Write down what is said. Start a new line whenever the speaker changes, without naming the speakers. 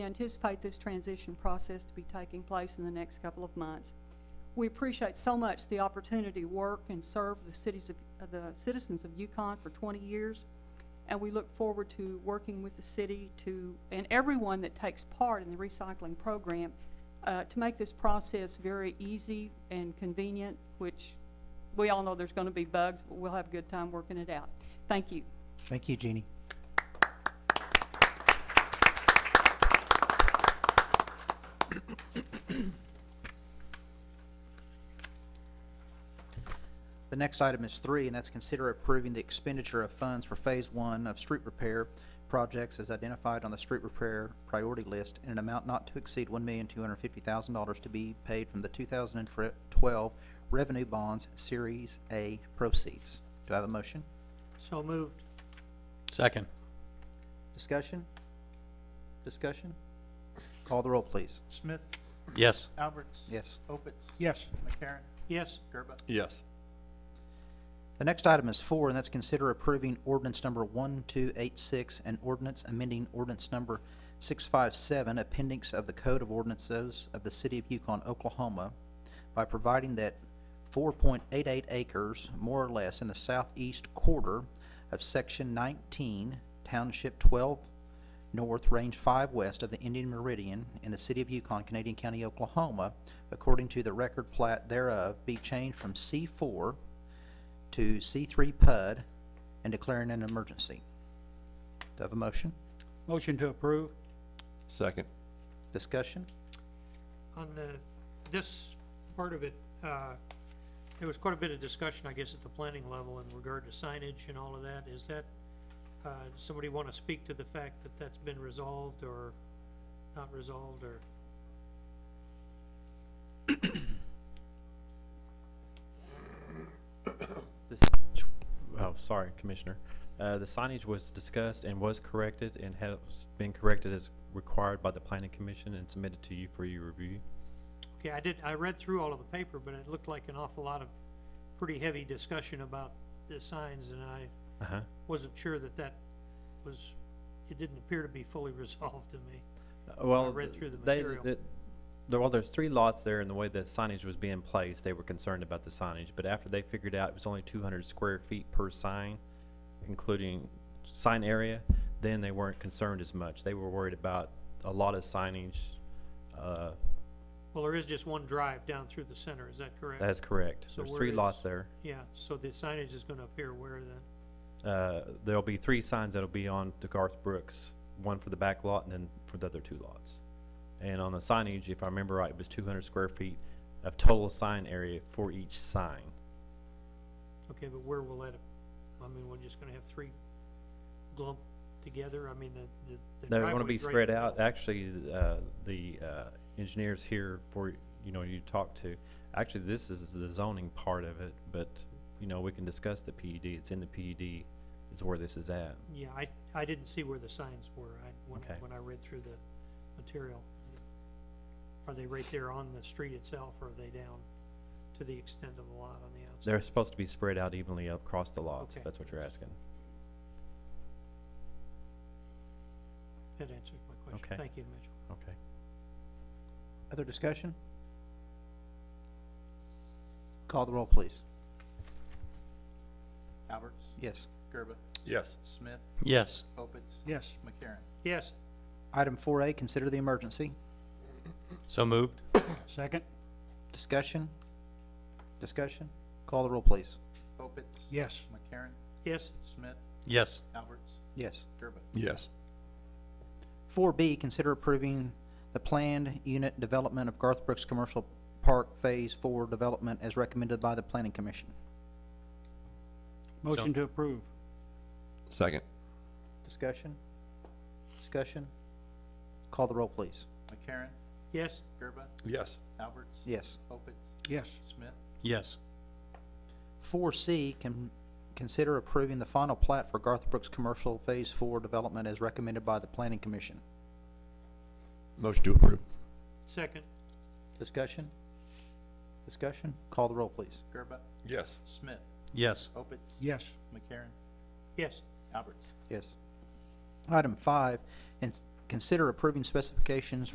anticipate this transition process to be taking place in the next couple of months. We appreciate so much the opportunity to work and serve the cities of, uh, the citizens of Yukon for twenty years. And we look forward to working with the city to, and everyone that takes part in the recycling program, uh, to make this process very easy and convenient, which we all know there's gonna be bugs, but we'll have a good time working it out. Thank you.
Thank you, Jeannie. The next item is three, and that's consider approving the expenditure of funds for Phase One of street repair projects as identified on the street repair priority list in an amount not to exceed one million two hundred fifty thousand dollars to be paid from the two thousand and twelve revenue bonds, Series A proceeds. Do I have a motion?
So moved.
Second.
Discussion? Discussion? Call the roll, please.
Smith,
Yes.
Alberts.
Yes.
Opitz.
yes,
McCarron. Yes. Gerba.
Yes.
The next item is four, and that's consider approving ordinance number one two eight six and ordinance amending ordinance number six five seven, appendix of the Code of Ordinances of the City of Yukon, Oklahoma, by providing that four point eight eight acres, more or less, in the southeast quarter of section nineteen, township twelve north, range five west of the Indian Meridian in the city of Yukon, Canadian County, Oklahoma, according to the record plat thereof, be changed from C four to C three PUD and declaring an emergency. Do I have a motion?
motion to approve,
Second.
Discussion?
On the, this part of it, uh, there was quite a bit of discussion, I guess, at the planning level in regard to signage and all of that. Is that, uh, does somebody want to speak to the fact that that's been resolved or not resolved or?
The signage, oh, sorry, Commissioner. Uh, the signage was discussed and was corrected and has been corrected as required by the planning commission and submitted to you for your review.
Okay, I did, I read through all of the paper, but it looked like an awful lot of pretty heavy discussion about the signs and I
Uh-huh.
wasn't sure that that was, it didn't appear to be fully resolved to me.
Uh, Well,
read through the
they-
material.
the- there- Well, there's three lots there and the way the signage was being placed, they were concerned about the signage. But after they figured out it was only two hundred square feet per sign, including sign area, then they weren't concerned as much. They were worried about a lot of signage, uh,
Well, there is just one drive down through the center, is that correct?
That's correct.
So
There's
where
three
is-
lots there.
Yeah, so the signage is gonna appear where then?
Uh, There'll be three signs that'll be on DeGarth Brooks, one for the back lot and then for the other two lots. And on the signage, if I remember right, it was two hundred square feet of total sign area for each sign.
Okay, but where will that, I mean, we're just gonna have three glump together, I mean, the, the- the
They're gonna be
driveway's right in
spread
the
out.
middle.
Actually, uh, the uh, engineers here for, you know, you talk to, actually, this is the zoning part of it, but, you know, we can discuss the PUD. It's in the PUD is where this is at.
Yeah, I, I didn't see where the signs were, I, when,
Okay.
when I read through the material. Are they right there on the street itself, or are they down to the extent of the lot on the outside?
They're supposed to be spread out evenly across the lots, if
Okay.
that's what you're asking.
That answers my question,
Okay.
thank you, Mitchell.
Okay.
Other discussion? Call the roll, please.
Alberts,
Yes.
Gerba,
Yes.
Smith,
Yes.
Opitz,
yes,
McCarron.
Yes,
Item four A, consider the emergency.
So moved.
second,
Discussion? Discussion? Call the roll, please.
Opitz.
yes,
McCarron,
yes,
Smith,
Yes.
Alberts,
Yes.
Gerba.
Yes.
Four B, consider approving the planned unit development of Garth Brooks Commercial Park Phase Four development as recommended by the Planning Commission.
motion to approve,
Second.
Discussion? Discussion? Call the roll, please.
McCarron,
yes,
Gerba,
Yes.
Alberts.
Yes.
Opitz,
yes,
Smith,
Yes.
Four C, can consider approving the final plat for Garth Brooks Commercial Phase Four development as recommended by the Planning Commission.
Motion to approve.
second,
Discussion? Discussion? Call the roll, please.
Gerba,
Yes.
Smith,
Yes.
Opitz.
yes,
McCarron,
yes,
Alberts.
Yes. Item five, and s- Consider approving specifications